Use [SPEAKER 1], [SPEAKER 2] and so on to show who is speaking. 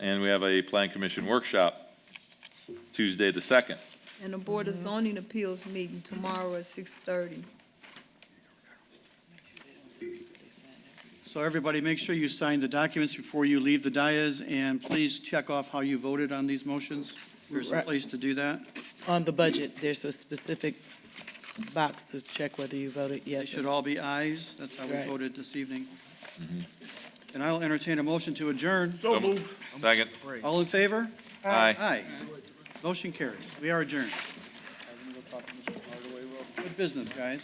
[SPEAKER 1] and we have a Plan Commission workshop Tuesday, the 2nd.
[SPEAKER 2] And the Board of Zoning Appeals meeting tomorrow at six thirty.
[SPEAKER 3] So everybody, make sure you sign the documents before you leave the dais, and please check off how you voted on these motions. There's a
[SPEAKER 4] Right.
[SPEAKER 3] place to do that.
[SPEAKER 4] On the budget, there's a specific box to check whether you voted
[SPEAKER 3] They
[SPEAKER 4] yes. or
[SPEAKER 3] should all be ayes. That's how we
[SPEAKER 4] Right.
[SPEAKER 3] voted this evening. And I'll entertain a motion to adjourn.
[SPEAKER 1] So Second.
[SPEAKER 3] All in favor?
[SPEAKER 1] Aye.
[SPEAKER 3] Aye. Motion carries. We are adjourned. Good business, guys.